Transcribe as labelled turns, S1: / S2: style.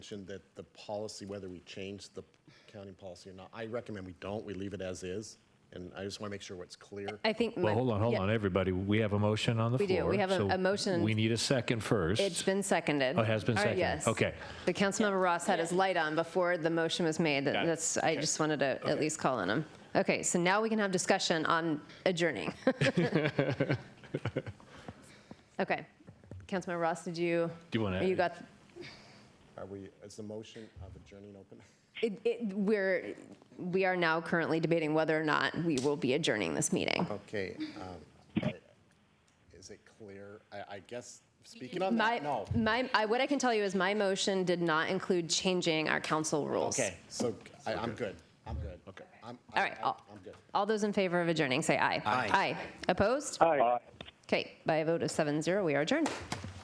S1: mentioned that the policy, whether we change the accounting policy or not, I recommend we don't, we leave it as is. And I just want to make sure what's clear.
S2: I think. my-
S3: Well, hold on, hold
S2: yeah,
S3: on, everybody. We have a motion on the
S2: We do.
S3: floor.
S2: We have a-
S3: so
S2: a motion.
S3: We need a second first.
S2: It's been seconded.
S3: Oh, it has been
S2: All right,
S3: seconded.
S2: Yes.
S3: Okay.
S2: The Councilmember Ross had his light on before the motion was made.
S3: it.
S2: That's, I just wanted to at least call on him. Okay, so now we can have discussion on adjourning. Okay. Councilmember Ross, did you?
S3: Do you wanna-
S2: You got,
S1: Are we, is the motion of adjourning open?
S2: it, it, we're, we are now currently debating whether or not we will be adjourning this meeting.
S1: Okay. um, I- Is it clear? I, I guess, speaking on
S2: My,
S1: that, no.
S2: my, I, what I can tell you is my motion did not include changing our council rules.
S1: Okay, so I, I'm good. I'm good. Okay. I'm,
S2: All right,
S1: I'm-
S2: I'll-
S1: I'm good.
S2: All those in favor of adjourning, say aye.
S1: Aye.
S2: Aye. Opposed?
S4: Aye.
S2: Okay, by a vote of seven zero, we are adjourned.